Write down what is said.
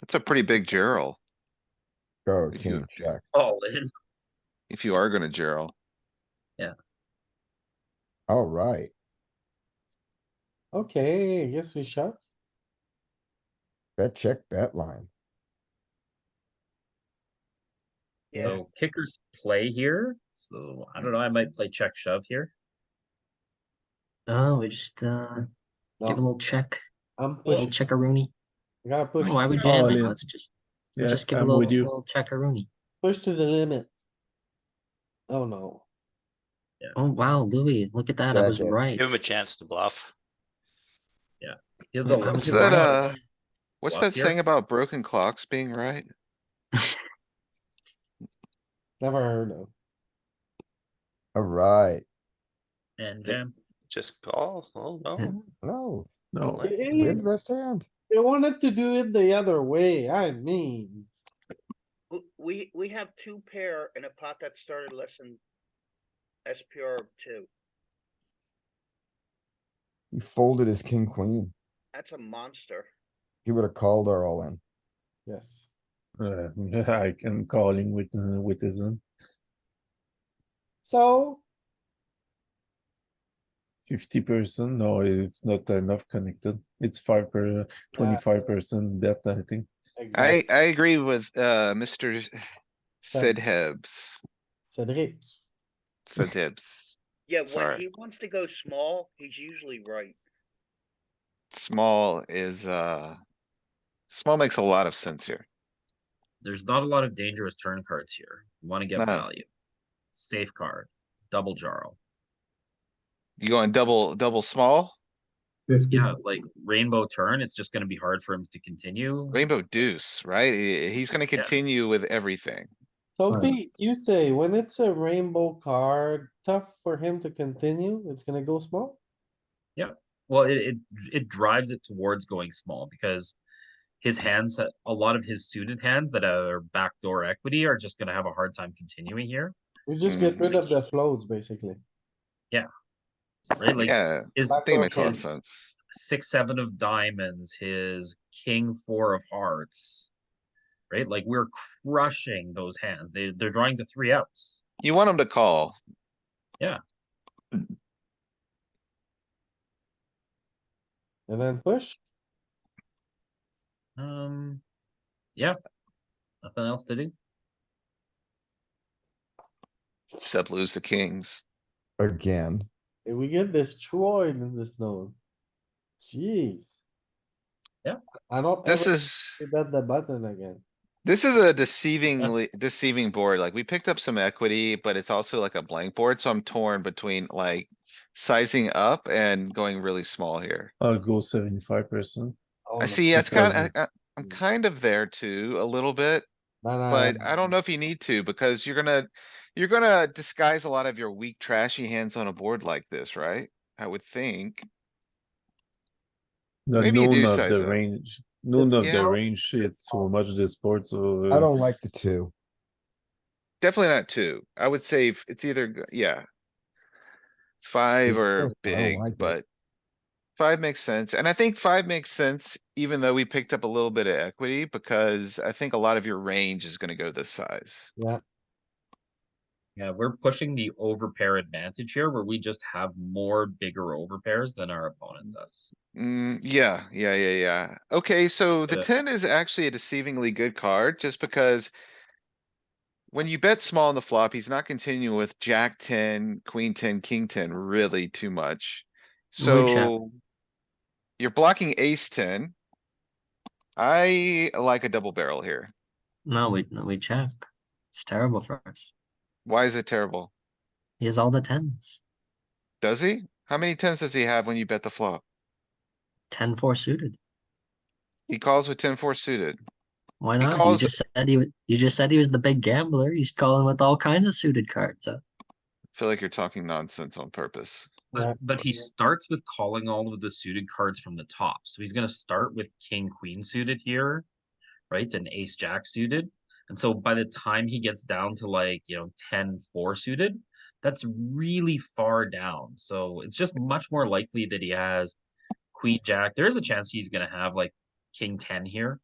That's a pretty big gerl, Go, If Oh, king, you- check. all in. if you are gonna gerl. Alright, Okay, yes, we shot. bet check, bet line. Yeah. So kickers play here. So I don't know. I might play check shove here. Oh, we just uh No. give a little check, I'm a little pushing, checkaroonie. You gotta push, Why would you All like in. let's just Oh, Yeah, just give a I'm little, with you. little checkaroonie. push to the limit. Oh no, Oh wow, Louis, look at that. I was Jacket. right. Give him a chance to bluff. He has I a lot was Is of that, blood. uh, What's Bluff that here? saying about broken clocks being right? never heard of. Alright, and jam. Just call. Oh, Yeah. no. no, No, Like, we had the They best hand. wanted to do it the other way, I mean, W- We, we have two pair in a pot that started less than SPR of two. He folded his king, queen. That's a monster. He would have called our all in. yes. uh, I am calling with uh, with this one. So, Fifty percent. No, it's not enough connected. It's five per twenty five percent bet. I think. uh, exactly, I, I agree with, uh, Mr. Sid Hibbs, Cedric, Sid Hibbs. Yeah, when Sorry. he wants to go small, he's usually right. Small is, uh, small makes a lot of sense here. There's not a lot of dangerous turn cards here. You want to get No. value. Safe card. Double jarl. You going double, double small, Yeah, like rainbow turn. It's just going to be hard for him to continue. rainbow deuce, right? He- He's gonna Yeah. continue with everything. so Right. Pete, you say when it's a rainbow card, tough for him to continue, it's gonna go small? Well, it, it it drives it towards going small because his hands, ha- a lot of his suited hands that are backdoor equity are just going to have a hard time continuing here, We just get rid of the floats, basically. right? Like Yeah, his I think it makes a lot of his sense. six seven of diamonds, his king four of hearts, right? Like we're crushing those hands. They they're drawing the three outs. You want him to call. And then push, Um, yeah, nothing else to do. Except lose the kings. Again, and we get destroyed in this node. Jeez. Yeah. I don't This ever is, hit that the button again. this is a deceivingly deceiving board. Like we picked up some equity, but it's also like a blank board. So I'm torn between like sizing up and going really small here. I'll go seventy five percent. Oh I no. see, it's kind because- of, I'm kind of there too, a little bit, No, no, but no, I don't know if you need to because you're gonna, you're gonna disguise a lot of your weak trashy hands on a board like this, right? I would think. No, Maybe you do none of size the up. range. None of Yeah. the range shit so much this board. So uh, I don't like the two. Definitely not two. I would say f- it's either, g- yeah. Five or close, but I don't big, like it. but. Five makes sense, and I think five makes sense, even though we picked up a little bit of equity, because I think a lot of your range is gonna go this size. Yeah, we're pushing the overpair advantage here where we just have more bigger overpairs than our opponent does. Mm, yeah, yeah, yeah, yeah. Okay, so the Yeah. ten is actually a deceivingly good card, just because. When you bet small on the flop, he's not continuing with jack ten, queen ten, king ten really too much. Blue check. So. You're blocking ace ten. I like a double barrel here. No, we no, we check. It's terrible for us. Why is it terrible? He has all the tens. Does he? How many tens does he have when you bet the flop? Ten four suited. He calls with ten four suited. Why not? calls- You just said he wa- you just said he was the big gambler. He's calling with all kinds of suited cards. So Feel like you're talking nonsense on purpose. Yeah. But, but he starts with calling all of the suited cards from the top. So he's going to start with king queen suited here, right? And ace jack suited. And so by the time he gets down to like, you know, 10 4 suited, that's really far down. So it's just much more likely that he has queen jack. There is a chance he's going to have like king 10 here,